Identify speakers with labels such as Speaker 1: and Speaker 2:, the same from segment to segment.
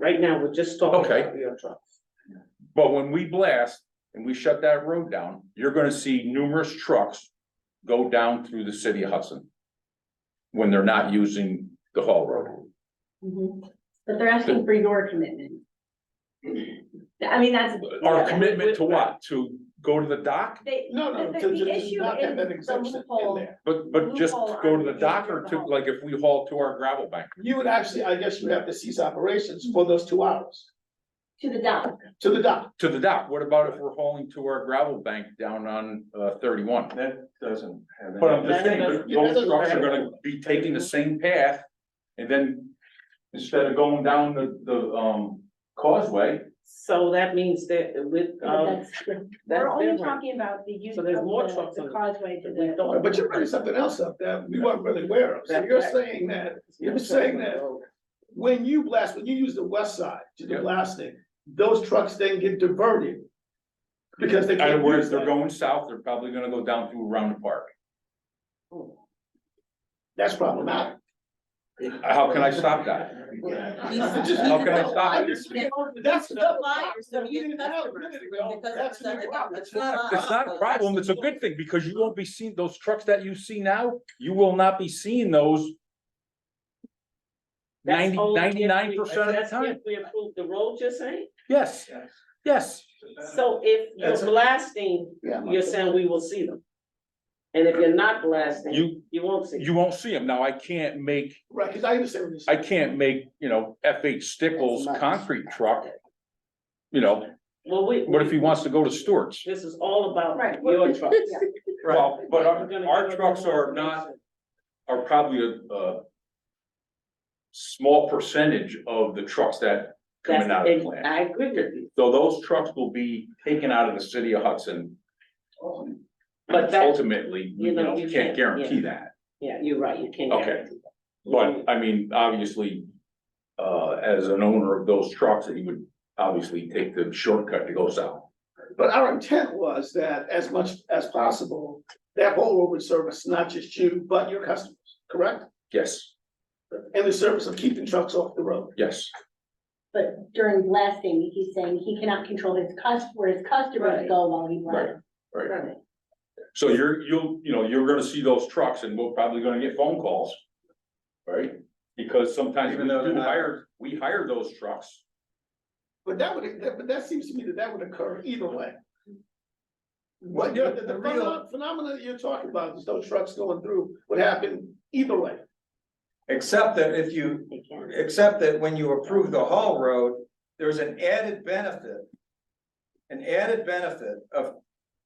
Speaker 1: right now, we're just talking
Speaker 2: Okay.
Speaker 1: about your truck.
Speaker 2: But when we blast and we shut that road down, you're gonna see numerous trucks go down through the city of Hudson. When they're not using the haul road.
Speaker 3: Mhm. But they're asking for your commitment. I mean, that's.
Speaker 2: Our commitment to what? To go to the dock?
Speaker 3: They,
Speaker 4: No, no,
Speaker 3: the,
Speaker 4: to- to-
Speaker 3: the
Speaker 4: to
Speaker 3: issue
Speaker 4: not have
Speaker 3: in
Speaker 4: that
Speaker 3: the
Speaker 4: exemption in
Speaker 3: loophole,
Speaker 4: there.
Speaker 2: But, but just to go to the dock or to, like, if we haul to our gravel bank?
Speaker 4: You would actually, I guess you would have to cease operations for those two hours
Speaker 3: to the
Speaker 1: Um,
Speaker 3: dock,
Speaker 4: to the dock.
Speaker 2: To the dock, what about if we're hauling to our gravel bank down on, uh, thirty-one?
Speaker 5: That doesn't have. any-
Speaker 2: But I'm just saying, but
Speaker 4: Yeah,
Speaker 2: those
Speaker 4: that's-
Speaker 2: trucks are gonna be taking the same path, and then instead of going down the, the, um, causeway,
Speaker 1: So that means that with, um,
Speaker 3: that's,
Speaker 1: that's
Speaker 3: we're only
Speaker 1: different.
Speaker 3: talking about the use
Speaker 1: So
Speaker 3: of
Speaker 1: there's more
Speaker 3: the,
Speaker 1: trucks on
Speaker 3: the
Speaker 1: the-
Speaker 3: causeway to
Speaker 1: that we
Speaker 3: the.
Speaker 1: don't-
Speaker 4: But you're bringing something else up that we weren't really aware of. So
Speaker 1: That-
Speaker 4: you're
Speaker 1: that-
Speaker 4: saying that, you're saying that when you blast, when you use the west side to the
Speaker 2: Yeah.
Speaker 4: blasting, those trucks then get diverted. Because they
Speaker 2: in other
Speaker 4: can't
Speaker 2: words,
Speaker 4: use
Speaker 2: they're
Speaker 4: that.
Speaker 2: going south, they're probably gonna go down through around the park.
Speaker 4: That's problematic.
Speaker 2: How can I stop that? How can I stop it?
Speaker 4: That's.
Speaker 6: so
Speaker 4: We didn't have it a minute ago.
Speaker 6: Because
Speaker 4: That's
Speaker 6: it's
Speaker 4: a
Speaker 6: a-
Speaker 4: problem.
Speaker 6: it's not
Speaker 2: It's not a problem, it's a good thing, because you won't be seeing, those trucks that you see now, you will not be seeing those
Speaker 1: That's
Speaker 2: 90
Speaker 1: only if we-
Speaker 2: 99% of the
Speaker 1: that's
Speaker 2: time.
Speaker 1: If we approve the road, you're saying?
Speaker 2: Yes, yes,
Speaker 1: So if
Speaker 4: Uh, That's-
Speaker 1: you're blasting,
Speaker 4: Yeah.
Speaker 1: you're saying we will see them. And if you're not blasting,
Speaker 2: you,
Speaker 1: you won't see.
Speaker 2: you won't see them. Now, I can't make
Speaker 4: Right, because I understand what you're
Speaker 2: I
Speaker 4: saying.
Speaker 2: can't make, you know, F H Stickles concrete truck. You know,
Speaker 1: Well, we.
Speaker 2: what if he wants to go to Stewart's?
Speaker 1: This is all about
Speaker 3: Right.
Speaker 1: your trucks.
Speaker 2: Well, but
Speaker 1: We're
Speaker 2: our,
Speaker 1: gonna
Speaker 2: our
Speaker 1: give them
Speaker 2: trucks
Speaker 1: more
Speaker 2: are not,
Speaker 1: information.
Speaker 2: are probably a, a small percentage of the trucks that coming
Speaker 1: That's-
Speaker 2: out of the
Speaker 1: and
Speaker 2: plant.
Speaker 1: I agree with you,
Speaker 2: So those trucks will be taken out of the city of Hudson.
Speaker 4: Oh,
Speaker 1: But that-
Speaker 2: Ultimately,
Speaker 1: you
Speaker 2: you
Speaker 1: know,
Speaker 2: know,
Speaker 1: you
Speaker 2: you
Speaker 1: can't,
Speaker 2: can't guarantee
Speaker 1: yeah.
Speaker 2: that.
Speaker 1: yeah, you're right, you can't.
Speaker 2: Okay.
Speaker 1: guarantee that.
Speaker 2: But I mean, obviously, uh, as an owner of those trucks, he would obviously take the shortcut to go south.
Speaker 4: But our intent was that as much as possible, that whole road would service not just you, but your customers, correct?
Speaker 2: Yes,
Speaker 4: In the service of keeping trucks off the road.
Speaker 2: yes.
Speaker 3: But during blasting, he's saying he cannot control his cus, where his
Speaker 1: Right.
Speaker 3: customers go while he
Speaker 2: Right,
Speaker 3: runs.
Speaker 2: right. So you're, you'll, you know, you're gonna see those trucks and we're probably gonna get phone calls. Right? Because sometimes we
Speaker 5: Even though they're
Speaker 2: do
Speaker 5: not-
Speaker 2: hire, we hire those trucks.
Speaker 4: But that would, that- but that seems to me that that would occur either way.
Speaker 5: Well,
Speaker 4: What
Speaker 5: yeah,
Speaker 4: you're,
Speaker 5: the
Speaker 4: the
Speaker 5: real-
Speaker 4: pheno- phenomenon that you're talking about, is those trucks going through, would happen either way.
Speaker 5: Except that if you,
Speaker 1: They can't.
Speaker 5: except that when you approve the haul road, there's an added benefit. An added benefit of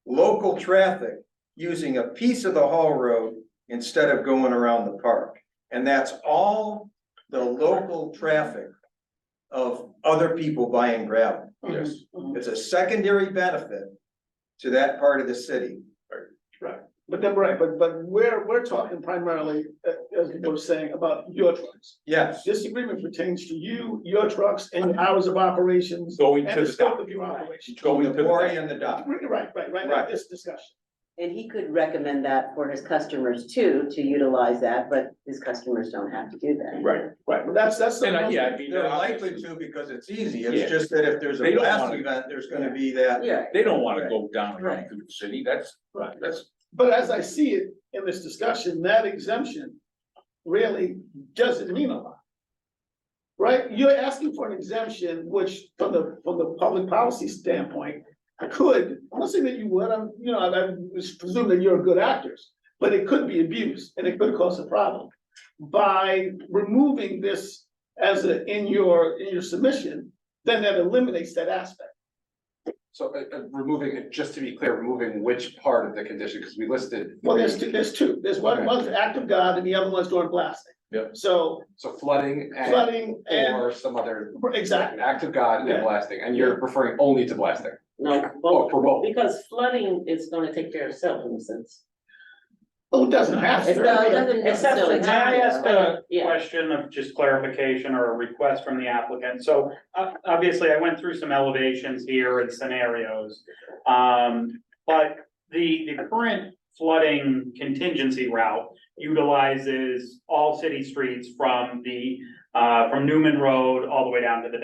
Speaker 5: local traffic using a piece of the haul road instead of going around the park. And that's all the local traffic of other people buying gravel.
Speaker 2: Yes.
Speaker 5: It's a secondary benefit to that part of the city.
Speaker 4: But then, right, but, but we're, we're talking primarily, uh, as you were saying, about your trucks.
Speaker 5: Yes,
Speaker 4: This agreement pertains to you, your trucks, and your hours of operations,
Speaker 2: Going
Speaker 4: and
Speaker 2: to
Speaker 4: the
Speaker 2: the
Speaker 4: scope
Speaker 2: dock.
Speaker 4: of your operation.
Speaker 2: Going
Speaker 5: the
Speaker 2: to the
Speaker 5: quarry
Speaker 2: dock.
Speaker 5: and the dock.
Speaker 4: Right, right, right, right,
Speaker 5: Right.
Speaker 4: this discussion.
Speaker 7: And he could recommend that for his customers too, to utilize that, but his customers don't have to do that.
Speaker 2: Right.
Speaker 4: Right, but that's, that's.
Speaker 2: And I, yeah, I mean,
Speaker 5: They're likely
Speaker 2: obviously,
Speaker 5: to because it's easy.
Speaker 2: Yeah.
Speaker 5: It's just that if there's a
Speaker 2: They don't
Speaker 5: blast
Speaker 2: wanna-
Speaker 5: event, there's gonna be that.
Speaker 7: Yeah.
Speaker 2: they don't wanna go down and run
Speaker 7: Right.
Speaker 2: through the city. That's,
Speaker 4: Right.
Speaker 2: that's,
Speaker 4: But as I see it in this discussion, that exemption really doesn't mean a lot. Right? You're asking for an exemption, which from the, from the public policy standpoint, I could, I'm not saying that you would, I'm, you know, I I just presume that you're good actors. But it could be abused and it could cause a problem. By removing this as a, in your, in your submission, then that eliminates that aspect.
Speaker 8: So uh, uh, removing, it just to be clear, removing which part of the condition, because we listed.
Speaker 4: Well, there's
Speaker 8: three.
Speaker 4: two, there's two, there's one,
Speaker 8: Okay.
Speaker 4: one's act of God and the other one's during blasting.
Speaker 2: Yep.
Speaker 4: So
Speaker 8: So flooding and
Speaker 4: flooding and,
Speaker 8: or some other
Speaker 4: exactly,
Speaker 8: act of God
Speaker 4: Yeah.
Speaker 8: and blasting, and you're referring only to blasting,
Speaker 1: No,
Speaker 8: oh,
Speaker 1: both,
Speaker 8: for both.
Speaker 1: because flooding is gonna take care of itself in a sense.
Speaker 4: oh, it doesn't have
Speaker 7: So it
Speaker 4: to.
Speaker 7: doesn't
Speaker 1: Except for
Speaker 7: necessarily
Speaker 1: that.
Speaker 7: have to.
Speaker 1: I ask a Yeah.
Speaker 9: question of just clarification or a request from the applicant? So uh, obviously, I went through some elevations here and scenarios. Um, but the, the current flooding contingency route utilizes all city streets from the, uh, from Newman Road all the way down to the